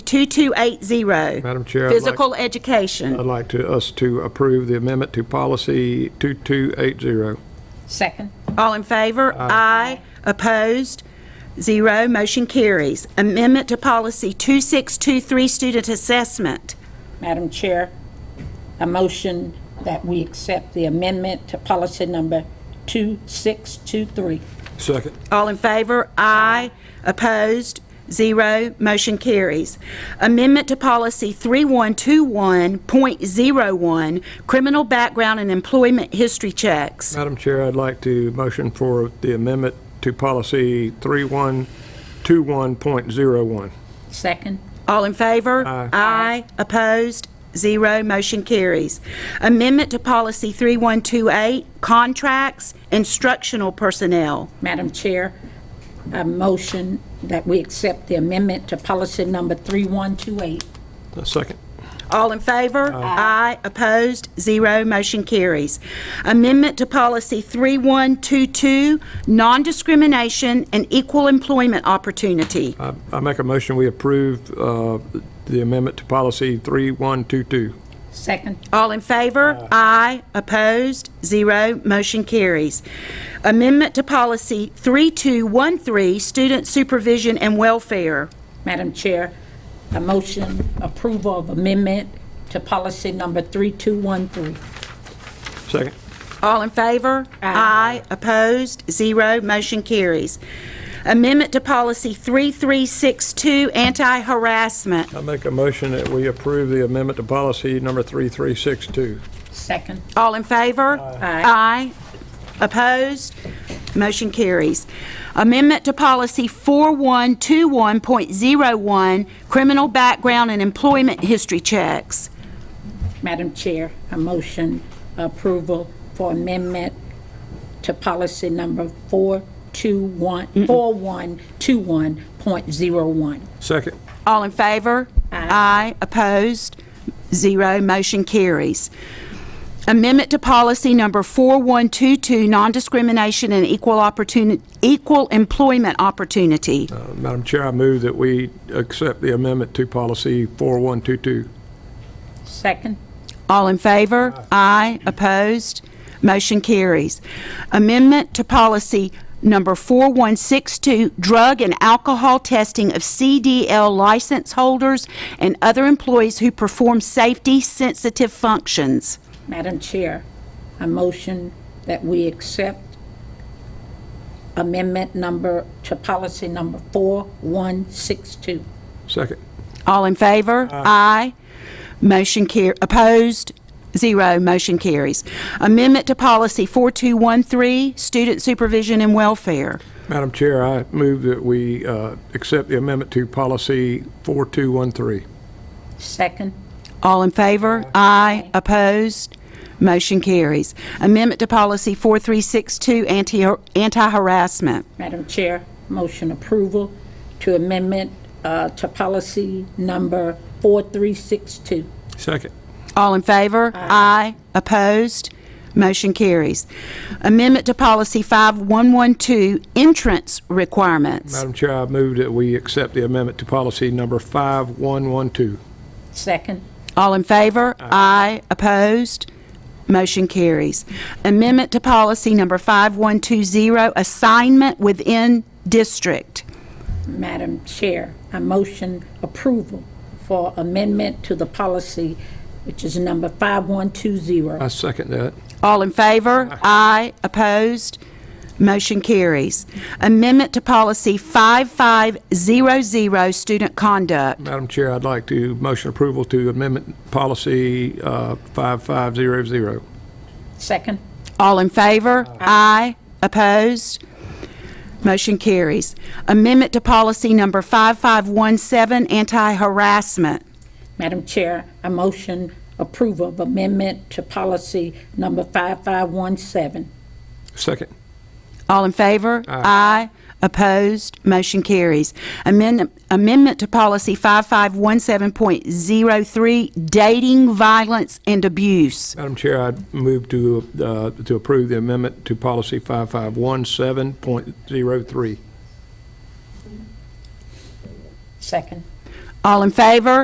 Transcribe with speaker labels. Speaker 1: 2280.
Speaker 2: Madam Chair, I'd like-
Speaker 1: Physical education.
Speaker 2: I'd like to, us to approve the amendment to policy 2280.
Speaker 3: Second.
Speaker 1: All in favor? Aye. Opposed? Zero. Motion carries. Amendment to Policy 2623, Student Assessment.
Speaker 3: Madam Chair, a motion that we accept the amendment to policy number 2623.
Speaker 2: Second.
Speaker 1: All in favor? Aye. Opposed? Zero. Motion carries. Amendment to Policy 3121.01, Criminal Background and Employment History Checks.
Speaker 2: Madam Chair, I'd like to motion for the amendment to policy 3121.01.
Speaker 3: Second.
Speaker 1: All in favor?
Speaker 2: Aye.
Speaker 1: Aye. Opposed? Zero. Motion carries. Amendment to Policy 3128, Contracts, Instructional Personnel.
Speaker 3: Madam Chair, a motion that we accept the amendment to policy number 3128.
Speaker 2: A Second.
Speaker 1: All in favor? Aye. Opposed? Zero. Motion carries. Amendment to Policy 3122, Non-Discrimination and Equal Employment Opportunity.
Speaker 2: I I make a motion, we approve uh, the amendment to policy 3122.
Speaker 3: Second.
Speaker 1: All in favor? Aye. Opposed? Zero. Motion carries. Amendment to Policy 3213, Student Supervision and Welfare.
Speaker 3: Madam Chair, a motion approval of amendment to policy number 3213.
Speaker 2: Second.
Speaker 1: All in favor? Aye. Opposed? Zero. Motion carries. Amendment to Policy 3362, Anti-Harassment.
Speaker 2: I make a motion that we approve the amendment to policy number 3362.
Speaker 3: Second.
Speaker 1: All in favor? Aye. Opposed? Motion carries. Amendment to Policy 4121.01, Criminal Background and Employment History Checks.
Speaker 3: Madam Chair, a motion approval for amendment to policy number 421 4121.01.
Speaker 2: Second.
Speaker 1: All in favor? Aye. Opposed? Zero. Motion carries. Amendment to Policy Number 4122, Non-Discrimination and Equal Opportunity, Equal Employment Opportunity.
Speaker 2: Uh, Madam Chair, I move that we accept the amendment to policy 4122.
Speaker 3: Second.
Speaker 1: All in favor? Aye. Opposed? Motion carries. Amendment to Policy Number 4162, Drug and Alcohol Testing of CDL License Holders and Other Employees Who Perform Safety-Sensitive Functions.
Speaker 3: Madam Chair, a motion that we accept amendment number to policy number 4162.
Speaker 2: Second.
Speaker 1: All in favor? Aye. Motion car, opposed? Zero. Motion carries. Amendment to Policy 4213, Student Supervision and Welfare.
Speaker 2: Madam Chair, I move that we uh, accept the amendment to policy 4213.
Speaker 3: Second.
Speaker 1: All in favor? Aye. Opposed? Motion carries. Amendment to Policy 4362, anti- Anti-Harassment.
Speaker 3: Madam Chair, motion approval to amendment uh, to policy number 4362.
Speaker 2: Second.
Speaker 1: All in favor? Aye. Opposed? Motion carries. Amendment to Policy 5112, Entrance Requirements.
Speaker 2: Madam Chair, I move that we accept the amendment to policy number 5112.
Speaker 3: Second.
Speaker 1: All in favor? Aye. Opposed? Motion carries. Amendment to Policy Number 5120, Assignment Within District.
Speaker 3: Madam Chair, I motion approval for amendment to the policy, which is number
Speaker 2: I
Speaker 3: 5120.
Speaker 2: second that.
Speaker 1: All in favor? Aye. Opposed? Motion carries. Amendment to Policy 5500, Student Conduct.
Speaker 2: Madam Chair, I'd like to motion approval to amendment policy uh, 5500.
Speaker 3: Second.
Speaker 1: All in favor? Aye. Opposed? Motion carries. Amendment to Policy Number 5517, Anti-Harassment.
Speaker 3: Madam Chair, I motion approval of amendment to policy number 5517.
Speaker 2: Second.
Speaker 1: All in favor? Aye. Opposed? Motion carries. Amend- Amendment to Policy 5517.03, Dating, Violence, and Abuse.
Speaker 2: Madam Chair, I'd move to, uh, to approve the amendment to policy 5517.03.
Speaker 3: Second.
Speaker 1: All in favor?